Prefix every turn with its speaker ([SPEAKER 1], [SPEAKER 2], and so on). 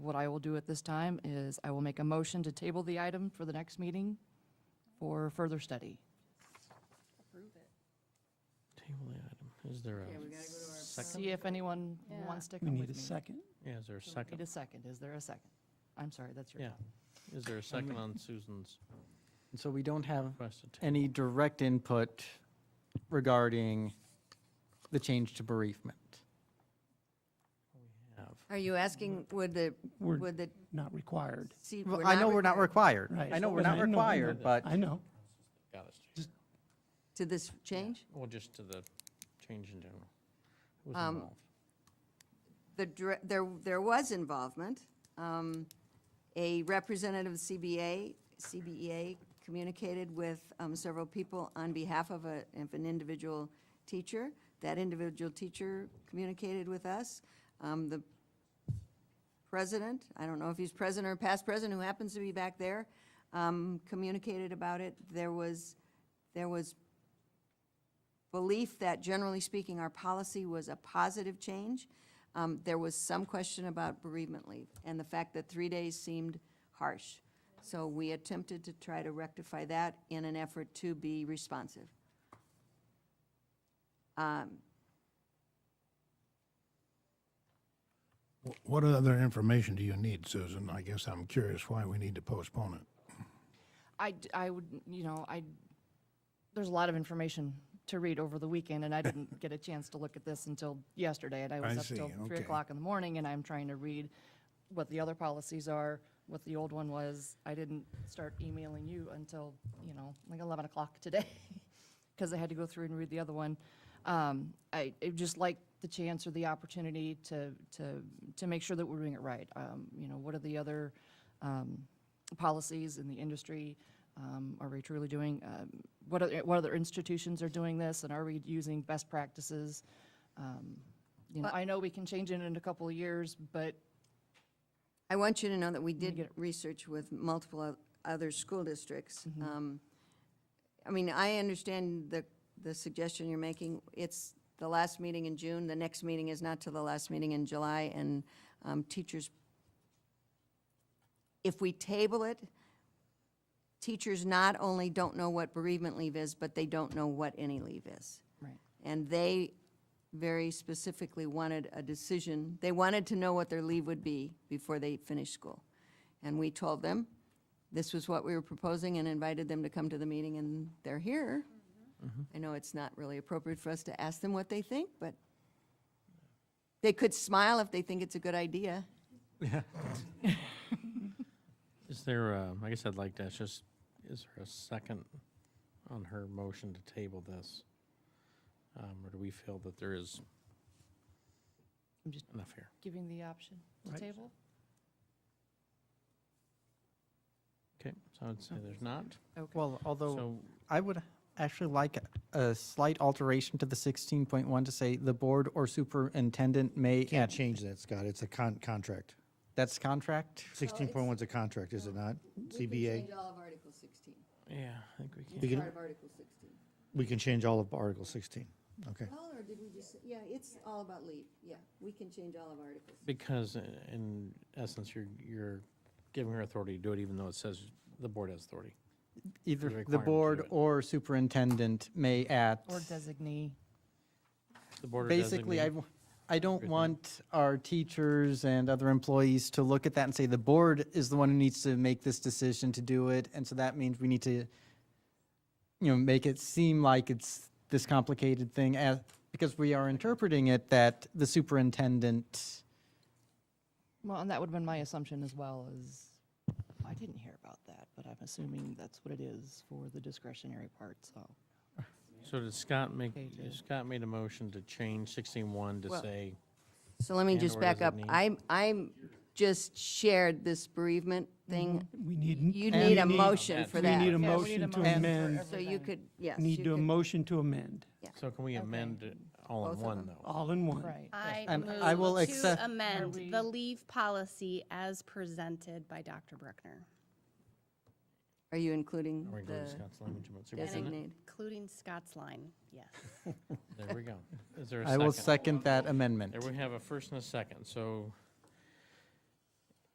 [SPEAKER 1] what I will do at this time is I will make a motion to table the item for the next meeting for further study.
[SPEAKER 2] Table the item. Is there
[SPEAKER 3] we
[SPEAKER 2] a
[SPEAKER 3] gotta go to our
[SPEAKER 2] second?
[SPEAKER 1] See if anyone
[SPEAKER 3] Yeah.
[SPEAKER 1] wants to
[SPEAKER 4] We
[SPEAKER 1] come with
[SPEAKER 4] need
[SPEAKER 1] me.
[SPEAKER 4] a second.
[SPEAKER 2] Yeah, is there a
[SPEAKER 1] Need
[SPEAKER 2] second?
[SPEAKER 1] a second. Is there a second? I'm sorry, that's your
[SPEAKER 2] Yeah.
[SPEAKER 1] time.
[SPEAKER 2] Is there a second on Susan's
[SPEAKER 5] And So we don't have
[SPEAKER 2] request to table?
[SPEAKER 5] any direct input regarding the change to bereavement.
[SPEAKER 2] Have.
[SPEAKER 3] Are you asking, would the,
[SPEAKER 4] We're
[SPEAKER 3] would the,
[SPEAKER 4] not required.
[SPEAKER 3] see?
[SPEAKER 5] Well, I know we're not required.
[SPEAKER 4] Right.
[SPEAKER 5] I know we're
[SPEAKER 4] And
[SPEAKER 5] not
[SPEAKER 4] I know-
[SPEAKER 5] required, but
[SPEAKER 4] I know.
[SPEAKER 2] Got us.
[SPEAKER 3] To this change?
[SPEAKER 2] Well, just to the change in general. Who's
[SPEAKER 3] Um,
[SPEAKER 2] involved?
[SPEAKER 3] The, dir- there, there was involvement. Um, A representative of CBA, CBEA E communicated with um, several people on behalf of a, of an individual teacher. That individual teacher communicated with us. Um, The president, I don't know if he's president or past president, who happens to be back there, um, communicated about it. There was, there was belief that generally speaking, our policy was a positive change. Um, There was some question about bereavement leave and the fact that three days seemed harsh. So we attempted to try to rectify that in an effort to be responsive. Um,
[SPEAKER 6] Wh- What other information do you need, Susan? I guess I'm curious why we need to postpone it.
[SPEAKER 1] I, d- I would, you know, I, there's a lot of information to read over the weekend, and I didn't get a chance to look at this until yesterday, and I was
[SPEAKER 6] I
[SPEAKER 1] up till
[SPEAKER 6] see,
[SPEAKER 1] three
[SPEAKER 6] okay.
[SPEAKER 1] o'clock in the morning, and I'm trying to read what the other policies are, what the old one was. I didn't start emailing you until, you know, like eleven o'clock today, because I had to go through and read the other one. Um, I, I'd just like the chance or the opportunity to, to, to make sure that we're doing it right. Um, you know, what are the other, um, policies in the industry? Um, Are we truly doing, um, what other, what other institutions are doing this, and are we using best practices? Um, You know, I know we can change it in a couple of years, but
[SPEAKER 3] I want you to know that we
[SPEAKER 1] get
[SPEAKER 3] did
[SPEAKER 1] it-
[SPEAKER 3] research with multiple oth- other school districts.
[SPEAKER 1] Mm-hmm.
[SPEAKER 3] Um, I mean, I understand the, the suggestion you're making. It's the last meeting in June, the next meeting is not till the last meeting in July, and um, teachers, if we table it, teachers not only don't know what bereavement leave is, but they don't know what any leave is.
[SPEAKER 1] Right.
[SPEAKER 3] And they very specifically wanted a decision. They wanted to know what their leave would be before they finished school. And we told them this was what we were proposing and invited them to come to the meeting, and they're here. I know it's not really appropriate for us to ask them what they think, but they could smile if they think it's a good idea.
[SPEAKER 2] Is there, uh, I guess I'd like to, ask just, is there a second on her motion to table this? Um, Or do we feel that there is
[SPEAKER 1] I'm just-
[SPEAKER 2] enough here?
[SPEAKER 1] giving the option to
[SPEAKER 4] Right.
[SPEAKER 1] table?
[SPEAKER 2] Okay, so I'd say there's not.
[SPEAKER 1] Okay.
[SPEAKER 5] Well, although
[SPEAKER 2] So
[SPEAKER 5] I would actually like a slight alteration to the 16.1 to say the board or superintendent may,
[SPEAKER 7] Can't
[SPEAKER 5] at
[SPEAKER 7] change that, Scott. It's a con, contract.
[SPEAKER 5] that's contract.
[SPEAKER 7] Sixteen point one's a contract, is it not? CBA.
[SPEAKER 3] all of Article 16,
[SPEAKER 2] Yeah, I think we
[SPEAKER 7] We
[SPEAKER 2] can.
[SPEAKER 7] can,
[SPEAKER 3] of Article 16.
[SPEAKER 7] we can change all of Article sixteen. Okay.
[SPEAKER 3] All, or did we just, yeah, it's all about leave, yeah. We can change all of Articles.
[SPEAKER 2] Because i- in essence, you're, you're giving her authority to do it even though it says the board has authority.
[SPEAKER 5] Either the
[SPEAKER 2] requirement to
[SPEAKER 5] board
[SPEAKER 2] it.
[SPEAKER 5] or superintendent may at.
[SPEAKER 1] Or designee.
[SPEAKER 2] The board or
[SPEAKER 5] Basically, I,
[SPEAKER 2] designee-
[SPEAKER 5] w- I don't want our teachers and other employees to look at that and say, the board is the one who needs to make this decision to do it. And so that means we need to, you know, make it seem like it's this complicated thing as, because we are interpreting it that the superintendent,
[SPEAKER 1] Well, and that would have been my assumption as well, is, I didn't hear about that, but I'm assuming that's what it is for the discretionary part, so.
[SPEAKER 2] So did Scott make,
[SPEAKER 1] Okay, to-
[SPEAKER 2] Scott made a motion to change sixteen one to
[SPEAKER 3] Well-
[SPEAKER 2] say,
[SPEAKER 3] So let me
[SPEAKER 2] And
[SPEAKER 3] just
[SPEAKER 2] or
[SPEAKER 3] back
[SPEAKER 2] does it
[SPEAKER 3] up.
[SPEAKER 2] need-
[SPEAKER 3] I'm, I'm, just shared this bereavement thing.
[SPEAKER 4] We need.
[SPEAKER 3] You
[SPEAKER 5] And
[SPEAKER 3] need a
[SPEAKER 5] we need-
[SPEAKER 3] motion
[SPEAKER 2] That
[SPEAKER 3] for
[SPEAKER 4] We need
[SPEAKER 3] that.
[SPEAKER 1] Yeah, we
[SPEAKER 4] a
[SPEAKER 1] need a
[SPEAKER 4] motion to
[SPEAKER 1] motion for
[SPEAKER 4] amend.
[SPEAKER 3] So you could, yes.
[SPEAKER 4] Need
[SPEAKER 3] you
[SPEAKER 4] to a
[SPEAKER 3] could-
[SPEAKER 4] motion to amend,
[SPEAKER 2] so can we amend it all
[SPEAKER 3] Both
[SPEAKER 2] in
[SPEAKER 3] of
[SPEAKER 2] one
[SPEAKER 3] them.
[SPEAKER 2] though?
[SPEAKER 4] all in one.
[SPEAKER 1] Right.
[SPEAKER 8] I
[SPEAKER 5] And I will
[SPEAKER 8] move
[SPEAKER 5] accept-
[SPEAKER 8] to amend the leave policy as presented by Dr. Bruckner,
[SPEAKER 3] Are you including
[SPEAKER 2] Or include
[SPEAKER 3] the
[SPEAKER 2] Scott's language about superintendent?
[SPEAKER 3] designate?
[SPEAKER 8] including Scott's line, yes.
[SPEAKER 2] There we go. Is there a
[SPEAKER 5] I will
[SPEAKER 2] second?
[SPEAKER 5] second that amendment.
[SPEAKER 2] There we have a first and a second, so